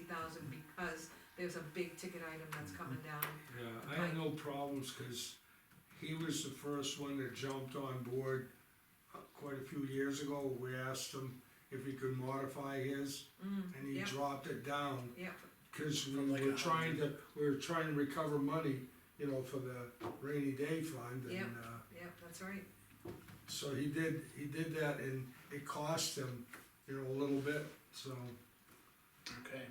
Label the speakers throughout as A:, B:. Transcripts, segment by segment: A: thousand because there's a big ticket item that's coming down.
B: Yeah, I had no problems, cause he was the first one that jumped on board uh, quite a few years ago. We asked him if he could modify his,
A: Mm,
B: and he
A: Yep.
B: dropped it down,
A: yep,
B: cause we
C: From like
B: were
C: a
B: trying to, we were trying to recover money, you know, for the rainy day fund,
A: Yep.
B: and, uh,
A: yep, that's right,
B: so he did, he did that, and it cost him, you know, a little bit, so.
C: Okay,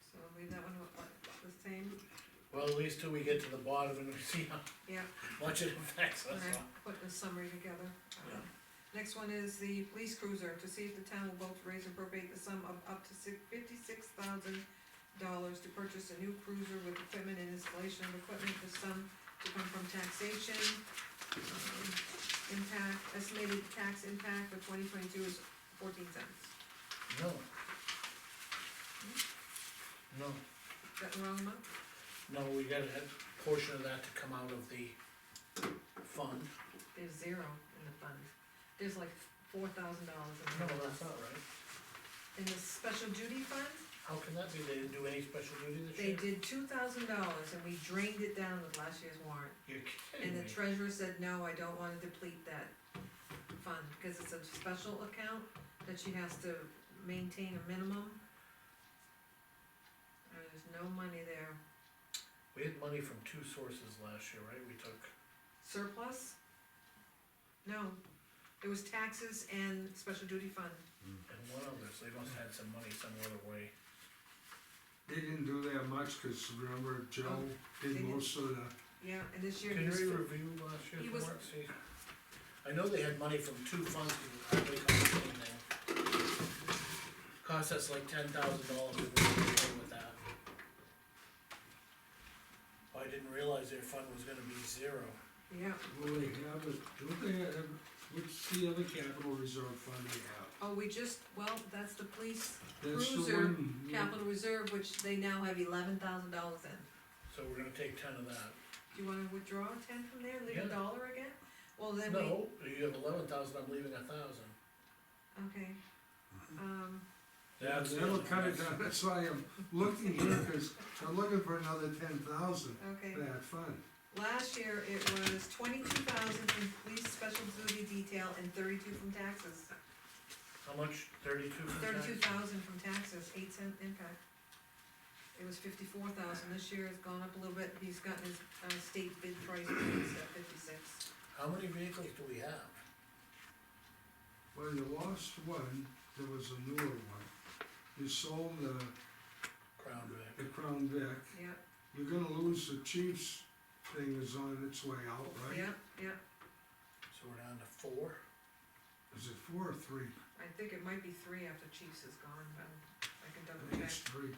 A: so leave that one what- what- the same,
C: well, at least till we get to the bottom and we see how
A: yeah,
C: much it affects us,
A: when I
C: so.
A: put the summary together. Um,
C: Yeah.
A: Next one is the police cruiser, to see if the town will vote to raise and appropriate the sum of up to fifty-six thousand dollars to purchase a new cruiser with equipment and installation of equipment, the sum to come from taxation. um, Impact, estimated tax impact for twenty twenty-two is fourteen cents.
C: No. No,
A: Is that the wrong amount?
C: no, we got a portion of that to come out of the fund.
A: There's zero in the fund. There's like four thousand dollars in
C: No,
A: the
C: that's not right.
A: In the special duty fund,
C: How can that be? They didn't do any special duty this
A: they
C: year?
A: did two thousand dollars and we drained it down with last year's warrant.
C: You're
A: And
C: kidding me.
A: the treasurer said, no, I don't wanna deplete that fund, because it's a special account that she has to maintain a minimum. And There's no money there.
C: We had money from two sources last year, right? We took,
A: Surplus? No, it was taxes and special duty fund.
C: and one other, so they must have had some money some other way.
B: They didn't do that much, cause remember Joe
A: Oh, they
B: did
A: did.
B: most of the
A: Yeah, and this year.
C: Can you
A: he's-
C: review last
A: He
C: year's
A: was-
C: warrant, see? I know they had money from two funds, to hardly cost us anything. Cost us like ten thousand dollars if we were to go with that. I didn't realize their fund was gonna be zero.
A: Yeah,
B: Well, they have it, don't they have, what's the other capital reserve fund they
A: oh, we just, well, that's the police
B: have? That's the
A: Cruiser
B: one. yeah.
A: capital reserve, which they now have eleven thousand dollars in.
C: So we're gonna take ten of that.
A: Do you wanna withdraw ten from there and leave
C: Yeah.
A: a dollar again? Well, then we,
C: No, you have eleven thousand, I'm leaving a thousand.
A: okay.
C: Mm-hmm.
A: Um,
B: Yeah, that'll cut it down, that's why I'm looking here, cause I'm looking for another ten thousand
A: okay,
B: for that fund.
A: last year it was twenty-two thousand from police special duty detail and thirty-two from taxes.
C: How much, thirty-two for tax?
A: Thirty-two thousand from taxes, eight cent impact. It was fifty-four thousand, this year it's gone up a little bit, he's gotten his, uh, state bid price, it's at fifty-six.
C: How many vehicles do we have?
B: Well, you lost one, there was a newer one. You sold the,
C: Crown Vic,
B: the Crown Vic,
A: Yeah,
B: you're gonna lose the Chiefs thing is on its way out, right?
A: yeah, yeah,
C: so we're down to four.
B: Is it four or three?
A: I think it might be three after Chiefs is gone, but I can
B: I
A: double
B: think
A: check.
B: it's three.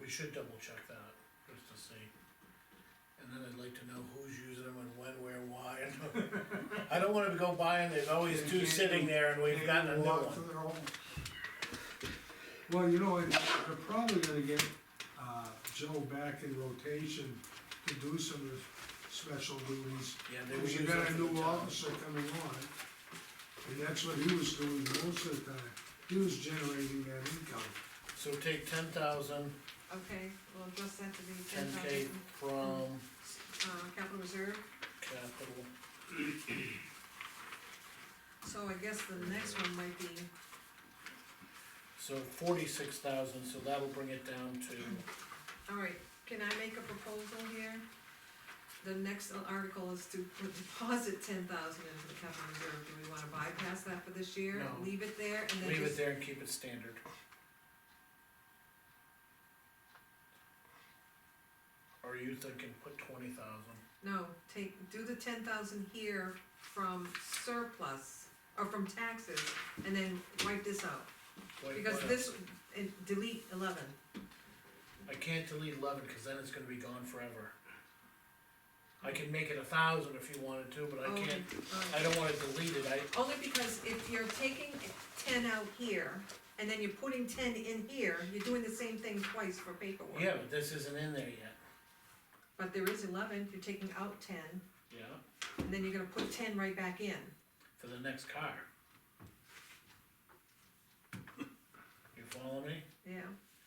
C: We should double check that, just to see. And then I'd like to know who's using them and when, where, why. and- I don't wanna go buying, there's always two sitting there and we've gotten a new
B: Walk to
C: one.
B: their home. Well, you know, I- they're probably gonna get, uh, Joe back in rotation to do some of his special duties.
C: Yeah, they were
B: Cause you
C: using
B: got a
C: them for the
B: new
C: town.
B: officer coming on, and that's what he was doing most of the time, he was generating that income.
C: So take ten thousand,
A: Okay, we'll adjust that to be ten
C: ten K
A: thousand,
C: from
A: uh, capital reserve,
C: capital.
A: so I guess the next one might be,
C: So forty-six thousand, so that'll bring it down to,
A: alright, can I make a proposal here? The next article is to put- deposit ten thousand into the capital reserve, do we wanna bypass that for this year?
C: No.
A: Leave it there and then
C: leave it
A: just,
C: there and keep it standard. Or you thinking put twenty thousand?
A: no, take, do the ten thousand here from surplus, or from taxes, and then wipe this out. Because this, and delete eleven,
C: I can't delete eleven, cause then it's gonna be gone forever. I can make it a thousand if you wanted to, but I
A: Oh,
C: can't,
A: alright.
C: I don't wanna delete it, I,
A: Only because if you're taking ten out here, and then you're putting ten in here, you're doing the same thing twice for paperwork.
C: yeah, but this isn't in there yet.
A: But there is eleven, you're taking out ten,
C: Yeah.
A: and then you're gonna put ten right back in.
C: For the next car. You follow me?
A: Yeah,